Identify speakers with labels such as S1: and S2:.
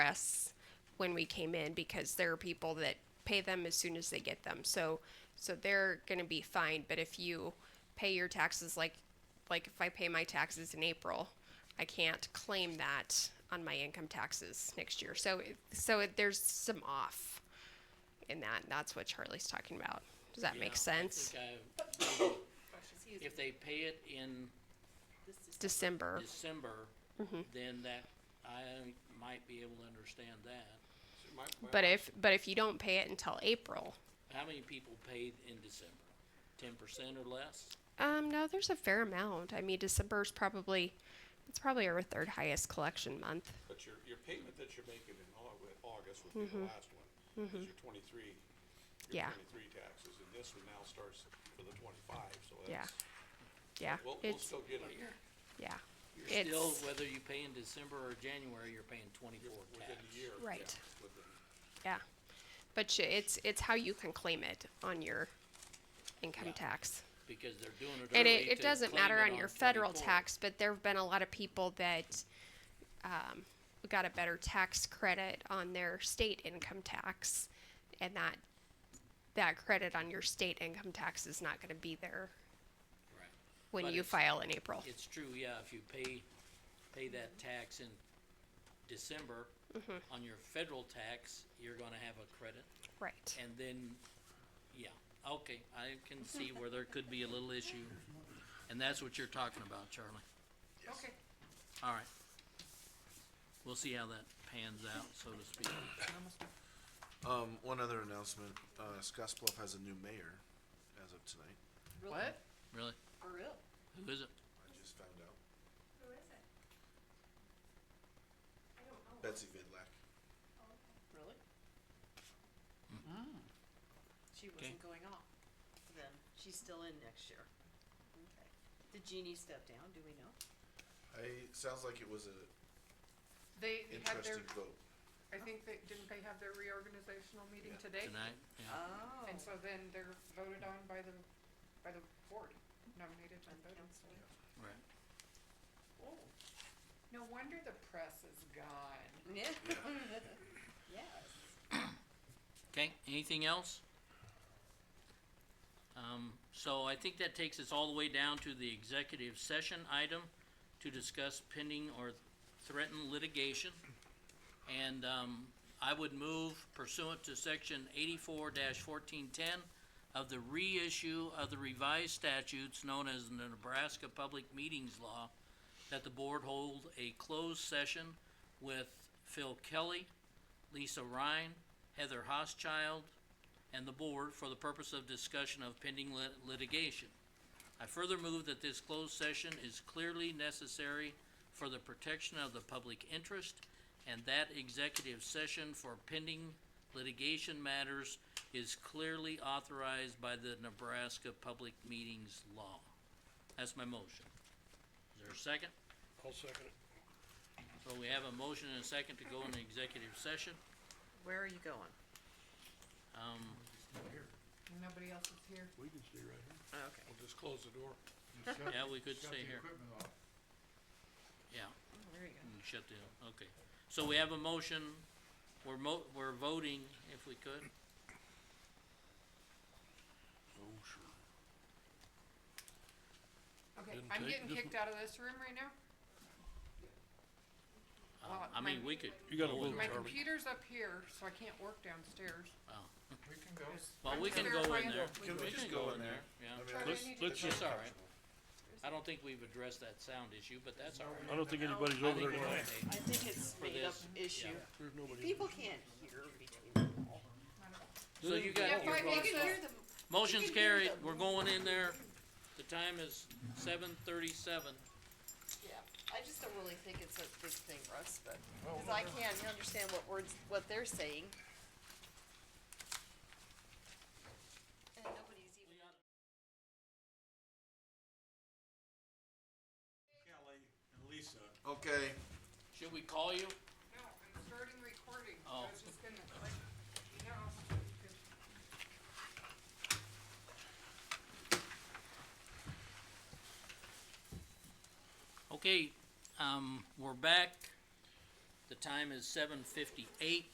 S1: less when we came in because there are people that pay them as soon as they get them. So so they're going to be fine, but if you pay your taxes like like if I pay my taxes in April, I can't claim that on my income taxes next year. So it- so it, there's some off in that. and That's what Charlie's talking about. Does that
S2: Yeah,
S1: make
S2: I
S1: sense?
S2: think I- If they pay it in
S1: December.
S2: December,
S1: Mm-hmm.
S2: then that, I might be able to understand that.
S1: But if but if you don't pay it until April,
S2: How many people paid in December? Ten percent or less?
S1: Um, no, there's a fair amount. I mean, December's probably it's probably our third highest collection month.
S3: But your, your payment that you're making in Au- with August would be the last one, is your twenty-three, your
S1: Mm-hmm. Yeah.
S3: twenty-three taxes, and this one now starts for the twenty-five, so
S1: Yeah.
S3: that's.
S1: Yeah,
S3: We'll, we'll
S1: it's
S3: still get it,
S1: yeah,
S2: You're
S1: it's
S2: still, whether you pay in December or January, you're paying
S3: you're
S2: twenty-four
S3: within
S2: tax.
S3: the year.
S1: Right.
S3: yeah, within-
S1: yeah, but you, it's it's how you can claim it on your income
S2: Yeah.
S1: tax,
S2: Because they're doing it
S1: and
S2: early
S1: it, it
S2: to
S1: doesn't
S2: claim
S1: matter
S2: it
S1: on your federal
S2: 24.
S1: tax. But there have been a lot of people that um, got a better tax credit on their state income tax, and that that credit on your state income tax is not going to be there
S2: Right.
S1: when
S2: But
S1: you
S2: it's-
S1: file in April.
S2: It's true, yeah, if you pay, pay that tax in December,
S1: Mm-hmm.
S2: on your federal tax, you're gonna have a credit.
S1: Right.
S2: And then, yeah, okay, I can see where there could be a little issue, and that's what you're talking about, Charlie.
S4: Okay.
S2: All right. We'll see how that pans out, so to speak.
S5: Um, one other announcement, uh, Scottsbluff has a new mayor as of tonight,
S4: What?
S2: Really?
S4: For real?
S2: Who is it?
S5: I just found out,
S6: Who is it? I don't know.
S5: Betsy Vidlac.
S4: Really? Mm. She wasn't going off then. She's still in next year. Okay. Did Jeannie step down? Do we know?
S5: I, sounds like it was a
S7: They had their,
S5: interesting vote,
S7: I think they, didn't they have their reorganizational meeting
S5: Yeah,
S7: today?
S2: Tonight? Yeah.
S4: Oh.
S7: And so then they're voted on by the, by the board, nominated and voted.
S2: Right.
S7: Oh, No wonder the press is gone.
S4: Yeah. Yes.
S2: Okay, anything else? Um, so I think that takes us all the way down to the executive session item to discuss pending or threatened litigation. And, um, I would move pursuant to section eighty-four fourteen-ten of the reissue of the revised statutes known as the Nebraska Public Meetings Law that the board hold a closed session with Phil Kelly, Lisa Ryan, Heather Hoschild, and the board for the purpose of discussion of pending lit- litigation. I further move that this closed session is clearly necessary for the protection of the public interest and that executive session for pending litigation matters is clearly authorized by the Nebraska Public Meetings Law. That's my motion. Is there a second? I'll second it. So we have a motion and a second to go into executive session.
S4: Where are you going?
S2: Um,
S7: Nobody else is here.
S8: We can stay right here.
S4: Okay.
S3: We'll just close the door.
S2: yeah, we could stay here,
S8: Shut the equipment off.
S2: yeah,
S4: Oh, There you go.
S2: and shut the, okay. So we have a motion, we're mo- we're voting if we could,
S8: Oh, sure.
S7: Okay,
S8: Didn't
S7: I'm
S8: take-
S7: getting
S8: just-
S7: kicked out of this room right now.
S2: Uh,
S7: Well,
S2: Um, I mean, we could.
S8: You gotta
S2: go
S8: vote,
S2: in-
S7: My
S8: Charlie.
S7: computer's up here, so I can't work downstairs.
S2: oh.
S8: We can go.
S2: Well,
S7: I'm
S2: we
S7: just
S2: can go in
S7: verifying.
S2: there,
S5: Can we
S2: we
S5: just
S2: can
S5: go
S2: go
S5: in
S2: in there,
S5: there?
S2: yeah.
S5: I mean,
S7: Charlie, I
S8: Let's,
S7: need to
S8: let's
S7: go.
S8: just,
S2: That's all right, I don't think we've addressed that sound issue, but that's all right.
S8: I don't think anybody's
S2: I
S8: over
S2: think
S8: there
S2: we're
S8: tonight.
S2: okay.
S4: I think it's made up
S2: this,
S4: issue.
S2: yeah.
S8: There's nobody.
S4: People can't hear between them all.
S2: So you
S7: Yeah,
S2: got,
S7: if I
S2: your
S7: make it,
S2: motion's
S4: can hear
S2: carried,
S4: them.
S2: we're going in there, the time is seven thirty-seven.
S4: Yeah. I just don't really think it's a big thing, Russ, but, cause I can't understand what words, what they're saying. And nobody's even.
S3: Kelly and Lisa.
S5: Okay,
S2: Should we call you?
S7: no, I'm starting recording, so
S2: Oh.
S7: I was just gonna, like, you know, because
S2: Okay, um, we're back. The time is seven fifty-eight.